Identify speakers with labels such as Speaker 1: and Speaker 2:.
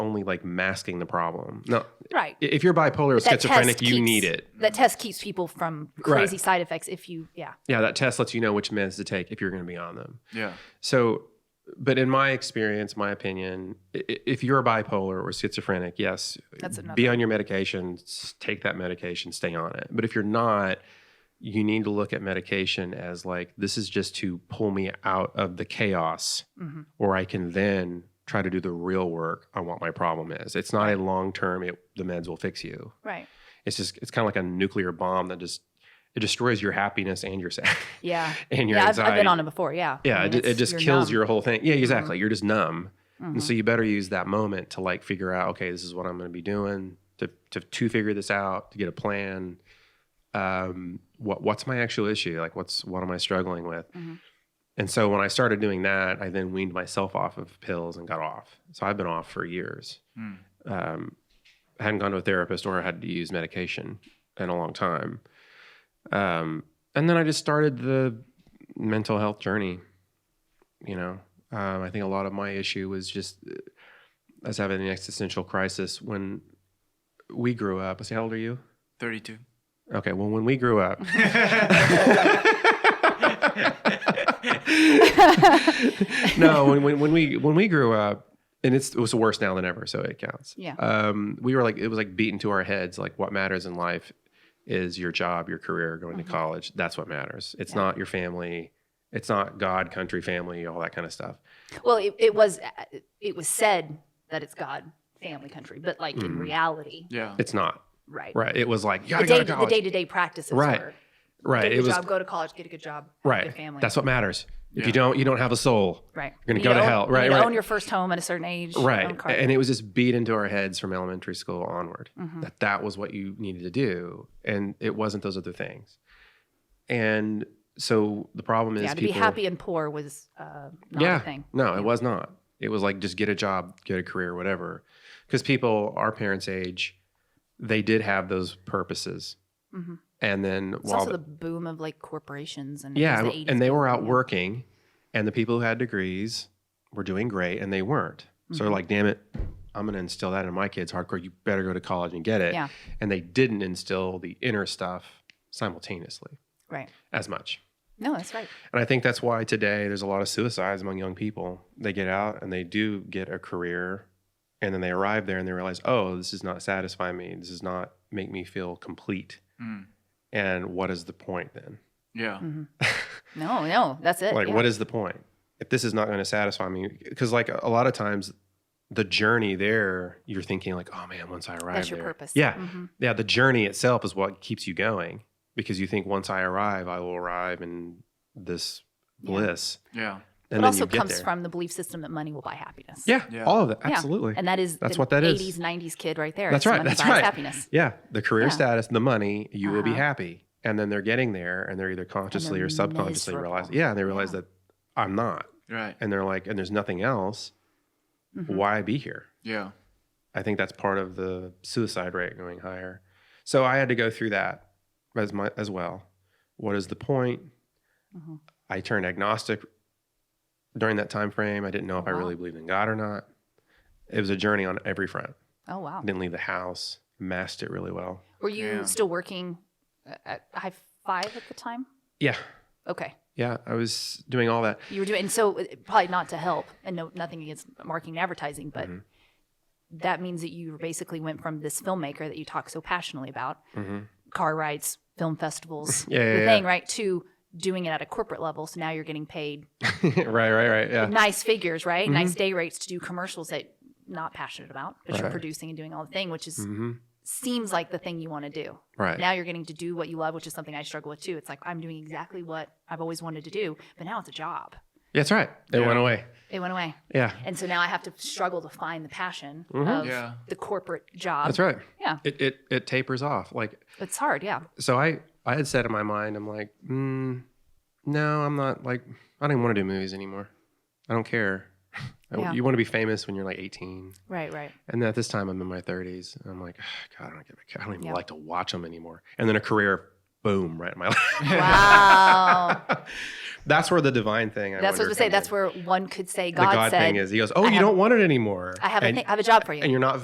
Speaker 1: only like masking the problem. No,
Speaker 2: Right.
Speaker 1: i- if you're bipolar or
Speaker 2: That test
Speaker 1: schizophrenic, you
Speaker 2: keeps-
Speaker 1: need it.
Speaker 2: That test keeps people from
Speaker 1: Mm-hmm. Right.
Speaker 2: crazy side effects if you, yeah.
Speaker 1: Yeah, that test lets you know which meds to take if you're going to be on them.
Speaker 3: Yeah.
Speaker 1: So, but in my experience, my opinion, i- i- if you're bipolar or schizophrenic, yes,
Speaker 2: That's
Speaker 1: be
Speaker 2: another.
Speaker 1: on your medication, s- take that medication, stay on it. But if you're not, you need to look at medication as like, this is just to pull me out of the chaos
Speaker 2: Mhm.
Speaker 1: or I can then try to do the real work on what my problem is. It's not a long term, it the meds will fix you.
Speaker 2: Right.
Speaker 1: It's just it's kind of like a nuclear bomb that just it destroys your happiness and your sa-
Speaker 2: Yeah.
Speaker 1: and your
Speaker 2: Yeah. I've,
Speaker 1: anxiety.
Speaker 2: I've been on it before. Yeah.
Speaker 1: Yeah,
Speaker 2: I mean,
Speaker 1: it, ju- it
Speaker 2: it's-
Speaker 1: just
Speaker 2: you're
Speaker 1: kills
Speaker 2: numb. Mm-hmm.
Speaker 1: your whole thing. Yeah, exactly. You're just numb. And
Speaker 2: Mhm.
Speaker 1: so you better use that moment to like figure out, okay, this is what I'm going to be doing to, to, to figure this out, to get a plan. Um, what, what's my actual issue? Like what's, what am I struggling with?
Speaker 2: Mhm.
Speaker 1: And so when I started doing that, I then weaned myself off of pills and got off. So I've been off for years.
Speaker 3: Mm.
Speaker 1: Um, I hadn't gone to a therapist or had to use medication in a long time. Um, and then I just started the mental health journey. You know, um, I think a lot of my issue was just uh, us having an existential crisis when we grew up. I say, how old are you?
Speaker 3: 32.
Speaker 1: Okay, well, when we grew up, no, when, when when we when we grew up, and it's it was worse now than ever, so it counts.
Speaker 2: Yeah.
Speaker 1: Um, we were like it was like beaten to our heads, like what matters in life is your job, your career, going
Speaker 2: Mhm.
Speaker 1: to college. That's what matters. It's
Speaker 2: Yeah.
Speaker 1: not your family. It's not God, country, family, all that kind of stuff.
Speaker 2: Well, it, it was it was said that it's God, family, country, but like in
Speaker 1: Mhm.
Speaker 2: reality,
Speaker 3: Yeah.
Speaker 1: It's not
Speaker 2: right?
Speaker 1: right. It was like you gotta
Speaker 2: The
Speaker 1: go
Speaker 2: day
Speaker 1: to
Speaker 2: the
Speaker 1: college.
Speaker 2: day to day practices
Speaker 1: Right.
Speaker 2: were
Speaker 1: right.
Speaker 2: get a
Speaker 1: It
Speaker 2: good
Speaker 1: was
Speaker 2: job, go to college, get a good job,
Speaker 1: right.
Speaker 2: good family.
Speaker 1: That's what matters. If
Speaker 3: Yeah.
Speaker 1: you don't, you don't have a soul.
Speaker 2: right.
Speaker 1: You're gonna
Speaker 2: You
Speaker 1: go to
Speaker 2: own-
Speaker 1: hell. Right,
Speaker 2: You need to
Speaker 1: right.
Speaker 2: Own your first home at a certain age.
Speaker 1: Right. And it was just beat into our heads from elementary school onward.
Speaker 2: hmm
Speaker 1: that that was what you needed to do and it wasn't those other things and so the problem is
Speaker 2: Yeah. To
Speaker 1: people,
Speaker 2: be happy and poor was uh, not
Speaker 1: Yeah.
Speaker 2: a thing.
Speaker 1: no
Speaker 2: Yeah.
Speaker 1: it was not it was like just get a job get a career whatever because people our parents age they did have those purposes
Speaker 2: Mhm.
Speaker 1: and then
Speaker 2: It's
Speaker 1: while
Speaker 2: also the boom of like corporations and it was
Speaker 1: yeah
Speaker 2: the
Speaker 1: and-
Speaker 2: 80s
Speaker 1: and they were out
Speaker 2: boom.
Speaker 1: working and the people who had degrees were doing great and they weren't so they're
Speaker 2: Mhm.
Speaker 1: like damn it i'm going to instill that in my kids hardcore you better go to college and get it
Speaker 2: Yeah.
Speaker 1: and they didn't instill the inner stuff simultaneously
Speaker 2: Right.
Speaker 1: as much
Speaker 2: No, that's right.
Speaker 1: And I think that's why today there's a lot of suicides among young people. They get out and they do get a career and then they arrive there and they realize, oh, this does not satisfy me. This does not make me feel complete.
Speaker 3: Mm.
Speaker 1: And what is the point then?
Speaker 3: Yeah.
Speaker 2: Mhm. No, no, that's it.
Speaker 1: like,
Speaker 2: Uh, yeah.
Speaker 1: what is the point? If this is not going to satisfy me, because like a lot of times the journey there, you're thinking like, oh man, once I arrive
Speaker 2: that's your
Speaker 1: there.
Speaker 2: purpose?
Speaker 1: Yeah.
Speaker 2: Mhm.
Speaker 1: Yeah, the journey itself is what keeps you going because you think once I arrive, I will arrive in this
Speaker 2: Yeah.
Speaker 1: bliss.
Speaker 3: Yeah.
Speaker 1: And
Speaker 2: it
Speaker 1: then
Speaker 2: also
Speaker 1: you get
Speaker 2: comes
Speaker 1: there.
Speaker 2: from the belief system that money will buy happiness.
Speaker 1: Yeah,
Speaker 3: Yeah.
Speaker 1: all of that.
Speaker 2: Yeah.
Speaker 1: Absolutely.
Speaker 2: And that is
Speaker 1: That's
Speaker 2: the
Speaker 1: what that is.
Speaker 2: 80s, 90s kid right there.
Speaker 1: That's
Speaker 2: It's
Speaker 1: right,
Speaker 2: money
Speaker 1: that's
Speaker 2: buys
Speaker 1: right.
Speaker 2: happiness.
Speaker 1: yeah, the career
Speaker 2: Yeah.
Speaker 1: status, the money, you will be
Speaker 2: Uh-huh.
Speaker 1: happy. And then they're getting there and they're either consciously or
Speaker 2: they're
Speaker 1: subconsciously realize,
Speaker 2: miserable.
Speaker 1: yeah, and they realize
Speaker 2: Yeah.
Speaker 1: that I'm not.
Speaker 3: Right.
Speaker 1: And they're like, and there's nothing else.
Speaker 2: Mhm.
Speaker 1: Why be here?
Speaker 3: Yeah.
Speaker 1: I think that's part of the suicide rate going higher. So I had to go through that as my as well. What is the point?
Speaker 2: Mhm.
Speaker 1: I turned agnostic during that time frame. I didn't know if I
Speaker 2: Wow.
Speaker 1: really believed in God or not. It was a journey on every front.
Speaker 2: Oh wow.
Speaker 1: Didn't leave the house. Masked it really well.
Speaker 2: Were you
Speaker 3: Yeah.
Speaker 2: still working at High Five at the time?
Speaker 1: Yeah,
Speaker 2: Okay,
Speaker 1: yeah. I was doing all that.
Speaker 2: you were doing, and so uh, probably not to help, and no, nothing against marketing and advertising, but
Speaker 1: Mhm.
Speaker 2: that means that you basically went from this filmmaker that you talk so passionately about,
Speaker 1: hmm
Speaker 2: car rides, film festivals,
Speaker 1: Yeah, yeah,
Speaker 2: the
Speaker 1: yeah.
Speaker 2: thing, right? To doing it at a corporate level, so now you're getting paid
Speaker 1: right, right, right. Yeah. Mm-hmm.
Speaker 2: nice figures, right? Nice day rates to do commercials that you're not passionate about, but you're
Speaker 1: Right.
Speaker 2: producing and doing all the thing, which is
Speaker 1: hmm
Speaker 2: seems like the thing you want to do.
Speaker 1: Right.
Speaker 2: Now you're getting to do what you love, which is something I struggle with too. It's like I'm doing exactly what I've always wanted to do, but now it's a job.
Speaker 1: That's right. It
Speaker 3: Yeah.
Speaker 1: went away.
Speaker 2: It went away.
Speaker 1: Yeah.
Speaker 2: And so now I have to struggle to find the passion
Speaker 1: Mhm.
Speaker 2: of
Speaker 3: Yeah.
Speaker 2: the corporate job.
Speaker 1: That's right.
Speaker 2: Um, Yeah.
Speaker 1: It it it tapers off. Like
Speaker 2: It's hard, yeah.
Speaker 1: so I I had said in my mind, I'm like, mm, no, I'm not like I don't even want to do movies anymore. I don't care. I-
Speaker 2: Yeah.
Speaker 1: You want to be famous when you're like 18,
Speaker 2: Right, right.
Speaker 1: and then at this time I'm in my 30s. And I'm like, "Ugh, "Ah, God, I don't give a, I don't even
Speaker 2: Yeah.
Speaker 1: like to watch them anymore. And then a career boom right in my lap.
Speaker 2: Wow.
Speaker 1: that's where the divine thing. I
Speaker 2: that's what I
Speaker 1: wonder
Speaker 2: was gonna say.
Speaker 1: comes
Speaker 2: That's
Speaker 1: in.
Speaker 2: where one could say
Speaker 1: the
Speaker 2: God,
Speaker 1: God
Speaker 2: said,
Speaker 1: thing is. He goes, "Oh,
Speaker 2: I
Speaker 1: you
Speaker 2: have-
Speaker 1: don't want it anymore.
Speaker 2: "I have
Speaker 1: and,
Speaker 2: a thing, I have a job for you."
Speaker 1: and you're not